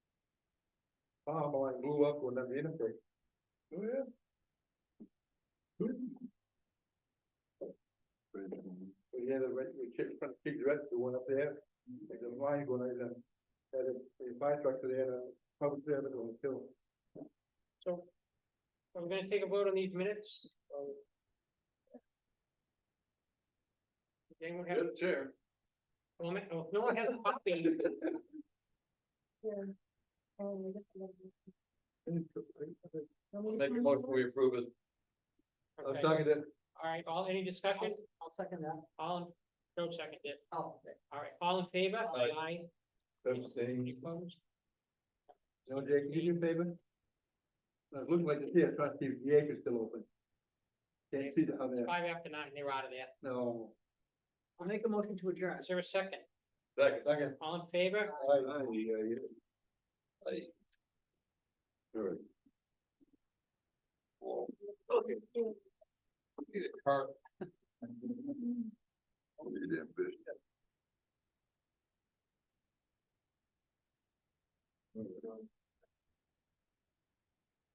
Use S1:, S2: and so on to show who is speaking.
S1: bomb like blew up when that interface. Oh, yeah. We had a, red- we kicked, front kick direct the one up there, like the line going, and then had a, a fire truck there, and a public service on the hill.
S2: So I'm gonna take a vote on these minutes. Um, Does Anyone have a
S1: chair.
S2: comment? Oh, No one has a copy.
S3: Oh,
S1: Make a motion, we approve it. I'm
S2: Okay.
S1: talking to,
S2: All right, all, any discussion?
S3: I'll second that.
S2: All, in- Joe seconded it.
S3: Oh, okay.
S2: All right, all in favor?
S1: Aye.
S2: Aye.
S1: I'm
S2: Any
S1: saying,
S2: opposed?
S1: no, Jake, can you do a favor? Now, It looks like the, yeah, trustee, the acre's still open. Can't see the, how there,
S2: Five after nine, they're out of there.
S1: no.
S3: I'll make a motion to adjourn.
S2: Is there a second?
S1: Second. Second.
S2: All in favor?
S1: Aye, aye, yeah, yeah. Aye. Sure. Well, okay. Need a car. Need ambition.